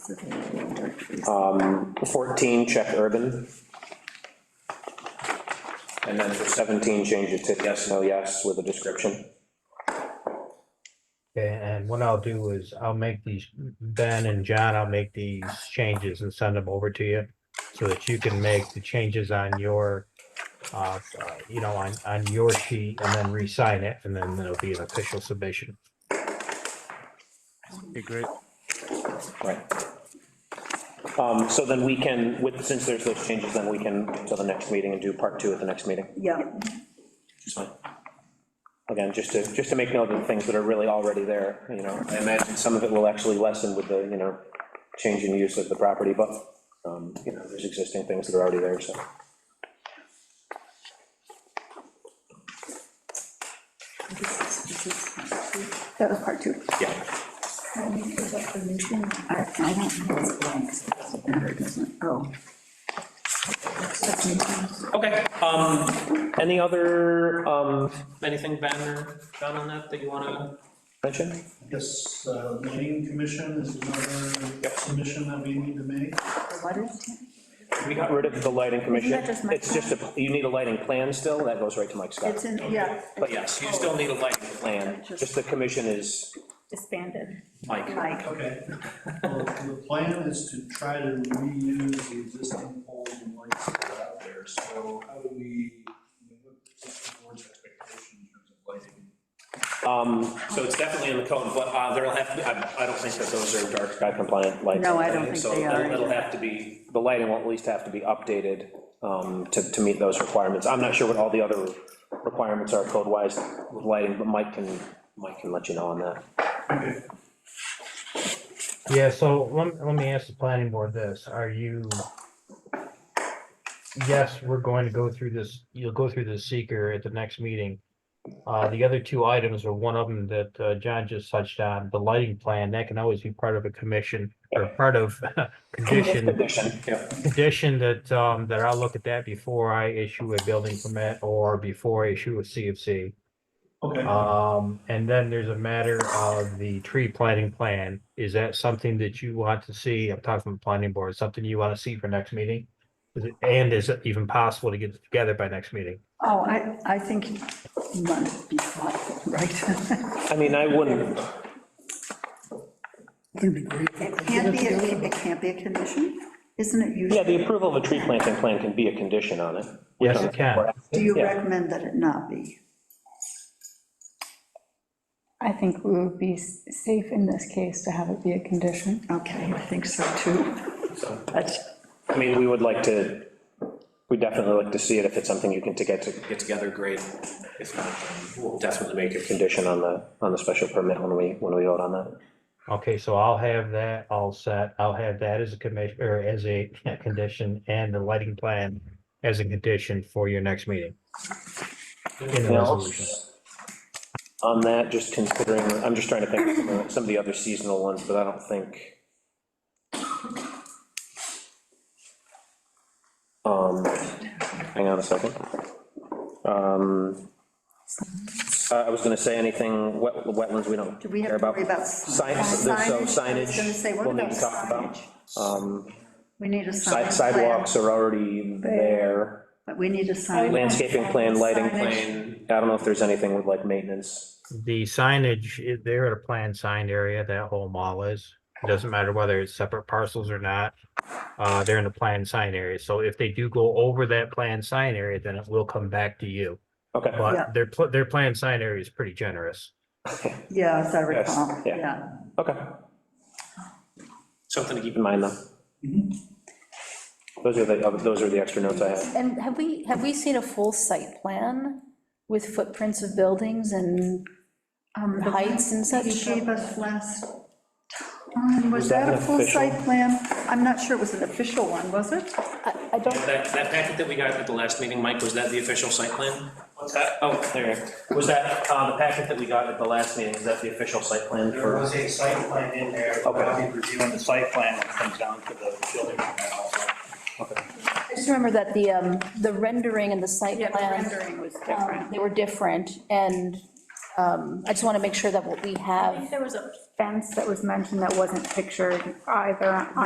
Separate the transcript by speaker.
Speaker 1: Um, 14, check urban. And then for 17, change it to yes, no, yes, with a description.
Speaker 2: Okay, And what I'll do is I'll make these, Ben and John, I'll make these changes and send them over to you so that you can make the changes on your, uh, uh, you know, on, on your sheet and then re-sign it and then it'll be an official submission.
Speaker 3: Okay, great.
Speaker 1: Right. Um, So then we can, with, since there's those changes, then we can, to the next meeting and do part two at the next meeting.
Speaker 4: Yeah,
Speaker 1: It's fine. Again, just to, just to make note of the things that are really already there, you know, I imagine some of it will actually lessen with the, you know, change in use of the property, but, um, you know, there's existing things that are already there, so.
Speaker 4: that was part two.
Speaker 1: Yeah.
Speaker 4: I I don't know what's blank. It's better, doesn't it? Oh.
Speaker 5: Okay, um, any other, um, anything Ben or John on that that you wanna mention?
Speaker 6: Yes, uh, Lane Commission is another submission that we need to make.
Speaker 4: What is it?
Speaker 1: We got rid of the lighting commission.
Speaker 4: Isn't that just Mike's
Speaker 1: It's just, a you need a lighting plan still, that goes right to Mike Scott.
Speaker 4: It's in, yeah.
Speaker 1: But yes, you still need a lighting plan, just the commission is
Speaker 4: Disbanded.
Speaker 1: Mike.
Speaker 4: Like,
Speaker 6: Okay. Well, the plan is to try to reuse the existing poles and lights that are out there, so how do we, what's the board's expectation in terms of lighting?
Speaker 1: Um, So it's definitely in the code, but uh, there'll have to, be- I I don't think that those are dark sky compliant lights.
Speaker 4: No, I don't think
Speaker 1: So
Speaker 4: they are
Speaker 1: it'll- it'll
Speaker 4: either.
Speaker 1: have to be, the lighting will at least have to be updated um, to, to meet those requirements. I'm not sure what all the other requirements are code-wise with lighting, but Mike can, Mike can let you know on that.
Speaker 2: Yeah, so let, let me ask the planning board this, are you? Yes, we're going to go through this, you'll go through the seeker at the next meeting. Uh, the other two items are one of them that, uh, John just touched on, the lighting plan, that can always be part of a commission or part of condition,
Speaker 1: Condition, yeah.
Speaker 2: condition that, um, that I'll look at that before I issue a building permit or before I issue a CFC.
Speaker 6: Okay.
Speaker 2: Um, and then there's a matter of the tree planting plan. Is that something that you want to see? I'm talking from the planning board, something you want to see for next meeting? Is it, and is it even possible to get it together by next meeting?
Speaker 4: oh, I, I think you want to be thoughtful, right?
Speaker 1: I mean, I wouldn't,
Speaker 7: That'd be great.
Speaker 4: It can't be, a- it can't be a condition, isn't it
Speaker 1: yeah,
Speaker 4: usually?
Speaker 1: the approval of a tree planting plan can be a condition on it.
Speaker 2: Yes, it can.
Speaker 4: Do you
Speaker 1: yeah.
Speaker 4: recommend that it not be?
Speaker 8: I think we would be s- safe in this case to have it be a condition.
Speaker 4: Okay, I think so too. That's,
Speaker 1: I mean, we would like to, we definitely like to see it if it's something you can to get to, get together, great. If not, then we'll definitely make a condition on the, on the special permit when we, when we vote on that.
Speaker 2: Okay, so I'll have that all set. I'll have that as a commission, or as a condition and the lighting plan as a condition for your next meeting. In the
Speaker 1: Anything else?
Speaker 2: resolution.
Speaker 1: On that, just considering, I'm just trying to think of some of- some of the other seasonal ones, but I don't think. Um, hang on a second. Um, I I was gonna say anything, wet, wetlands, we don't
Speaker 4: do we have
Speaker 1: care
Speaker 4: to
Speaker 1: about.
Speaker 4: worry about?
Speaker 1: Signs, so
Speaker 4: I was gonna say,
Speaker 1: signage,
Speaker 4: what
Speaker 1: we'll need
Speaker 4: about
Speaker 1: to talk about.
Speaker 4: signage?
Speaker 1: Um,
Speaker 4: We need a sign
Speaker 1: si-
Speaker 4: plan.
Speaker 1: Sidewalks are already there,
Speaker 4: But we need a sign.
Speaker 1: landscaping plan, lighting
Speaker 4: Signage.
Speaker 1: plan, I don't know if there's anything with like maintenance.
Speaker 2: The signage, i- they're at a planned sign area, that whole mall is. It Doesn't matter whether it's separate parcels or not. Uh, they're in the planned sign area. So if they do go over that planned sign area, then it will come back to you.
Speaker 1: Okay.
Speaker 4: Yeah.
Speaker 2: But their, pl- their planned sign area is pretty generous.
Speaker 4: Yeah, as I
Speaker 1: Yes,
Speaker 4: recall,
Speaker 1: yeah.
Speaker 4: yeah.
Speaker 1: Okay. Something to keep in mind, though.
Speaker 4: Mm-hmm.
Speaker 1: Those are the, uh, those are the extra notes I have.
Speaker 9: And have we, have we seen a full site plan with footprints of buildings and
Speaker 4: Um, the
Speaker 9: heights and
Speaker 4: one that
Speaker 9: such?
Speaker 4: You gave us last time, was
Speaker 1: Was that
Speaker 4: that a
Speaker 1: an
Speaker 4: full
Speaker 1: official?
Speaker 4: site plan? I'm not sure it was an official one, was it?
Speaker 9: I, I don't,
Speaker 5: That, that packet that we got at the last meeting, Mike, was that the official site plan? What's that? Oh, there you go. Was that, uh, the packet that we got at the last meeting, is that the official site plan
Speaker 3: There was a site plan in there, but I'll be reviewing the site plan when it comes down to the building permit also.
Speaker 9: I just remember that the, um, the rendering and the site plan,
Speaker 4: was
Speaker 9: um, they were different, and, um, I just want to make sure that what we
Speaker 10: I think
Speaker 9: have,
Speaker 10: there was a
Speaker 8: fence that was mentioned that wasn't pictured either